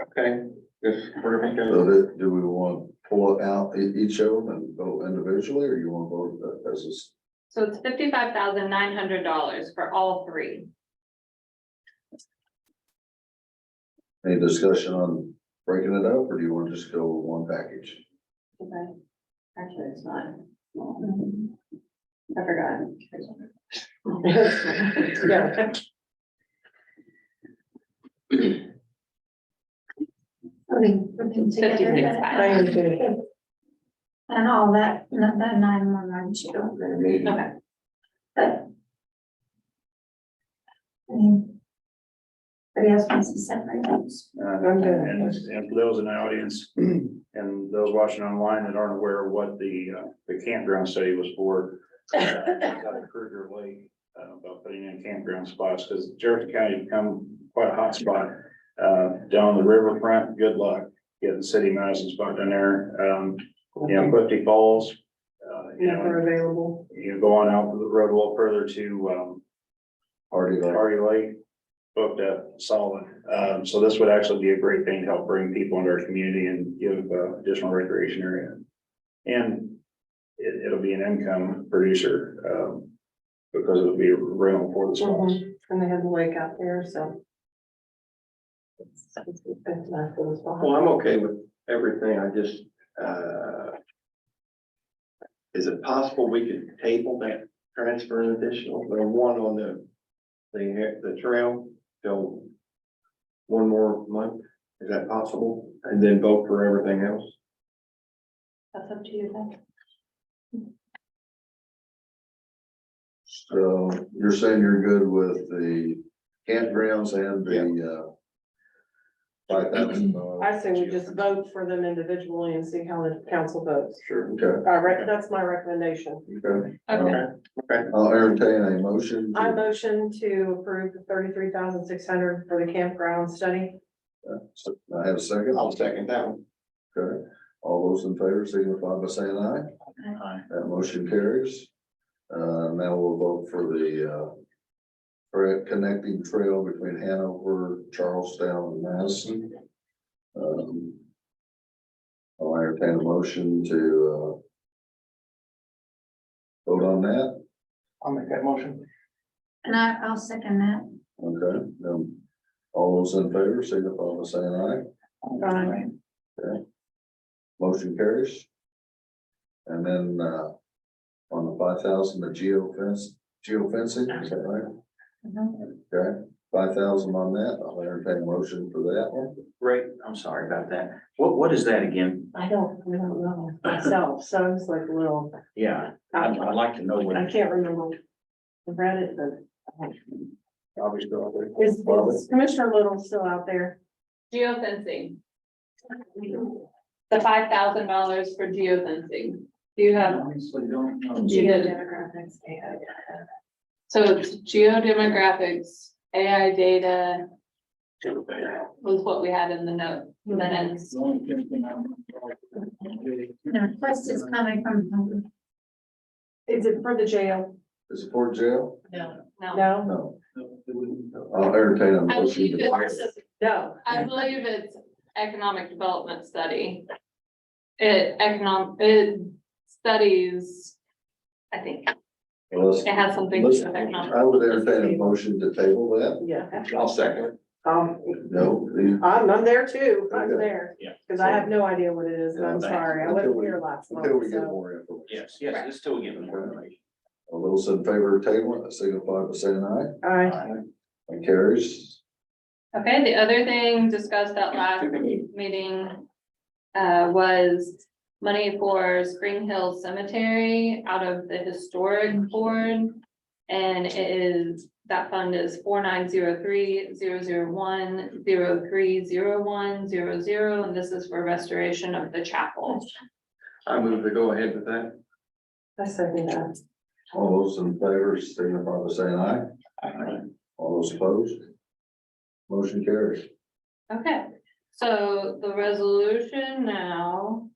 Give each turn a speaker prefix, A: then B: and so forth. A: Okay, if we're gonna,
B: So that, do we want to pull out e- each of them and vote individually, or you want to vote uh, as a, s-
C: So it's fifty-five thousand nine hundred dollars for all three.
B: any discussion on breaking it up, or do you want to just go one package?
C: Okay. Actually, it's not. I forgot.
D: Yeah.
C: Fifty-six
D: I
C: thousand.
D: am too.
E: And all that, not that nine one nine, she don't really need,
C: Okay,
E: but. I mean. But else wants to separate those.
D: I'm good.
F: And, and for those in the audience and those watching online that aren't aware of what the, uh, the campground study was for. uh, Out of Kruger Lake, uh, about putting in campground spots, because Jefferson County become quite a hot spot. Uh, down the riverfront, good luck getting city Madison spot down there, um, you know, Clifty Falls. Uh, you know,
D: Never available.
F: you go on out the road a little further to, um,
B: Already, like,
F: Party Lake booked up solid. Um, so this would actually be a great thing to help bring people into our community and give uh, additional recreation area. And it, it'll be an income producer, um, because it'll be rental for the spots.
D: Mhm. And they had the lake out there, so. It's it's not for the spot.
A: well, I'm okay with everything, I just, uh. Is it possible we could table that transfer and additional, the one on the, the, the trail till. One more month, is that possible? And then vote for everything else?
C: that's up to you then.
B: so you're saying you're good with the campgrounds and the, uh, five thousand dollars?
D: I say we just vote for them individually and see how the council votes.
F: Sure.
B: Okay,
D: I rec, that's my recommendation.
B: okay.
C: Okay,
A: Okay,
B: I'll entertain a motion. to-
D: I motion to approve the thirty-three thousand six hundred for the campground study.
B: uh, I have a second,
A: I'll second that one.
B: okay, all those in favor signify by saying aye.
F: Aye.
B: That motion carries. Uh, now we'll vote for the, uh, for a connecting trail between Hanover, Charlestown, and Madison. Um, I'll entertain a motion to, uh, vote on that.
A: I'll make that motion.
E: And I, I'll second that.
B: Okay, um, all those in favor, signify by saying
D: Aye.
B: aye. Okay. Motion carries. And then, uh, on the five thousand, the geo fence, geo fencing, is that right? Okay, five thousand on that, I'll entertain a motion for that one.
G: Great, I'm sorry about that. What, what is that again?
D: I don't, I don't know myself, so I was like, a little.
G: Yeah, I'd,
D: I
G: I'd like to know what.
D: I can't remember. I read it, but
F: Obviously, I'll do.
D: is is Commissioner Little still out there?
C: geofencing. The five thousand dollars for geofencing. Do you have,
G: Honestly, don't know.
D: Geodemographics.
C: so it's geodemographics, AI data was what we had in the note minutes.
G: The only thing I'm-
E: The request is coming from.
D: Is it for the jail?
B: Is it for jail?
C: No,
D: No?
B: No, I'll entertain a
C: I
B: motion.
C: believe
B: to-
C: it's,
D: No.
C: I believe it's economic development study. It economic, it studies, I think,
B: Well, let's-
C: it has something to do with
B: let's-
C: economic.
B: I would entertain a motion to table that.
D: Yeah.
A: I'll second.
D: Um,
B: No, the-
D: I'm, I'm there too. I'm there.
G: Yeah.
D: Because I have no idea what it is and I'm
B: Yeah.
D: sorry. I
B: Until
D: wasn't
B: we-
D: here last month.
B: until we get
D: so-
B: more info.
G: Yes, yes, it's still giving more information.
B: All those in favor of tabling, signify by saying aye.
D: Aye.
B: That carries.
C: Okay, the other thing discussed at last meeting uh, was money for Spring Hill Cemetery out of the historic board. And it is, that fund is four nine zero three zero zero one zero three zero one zero zero, and this is for restoration of the chapel.
A: I move to go ahead with that.
D: I second that.
B: All those in favor, signify by saying aye. All those opposed? Motion carries.
C: Okay, so the resolution now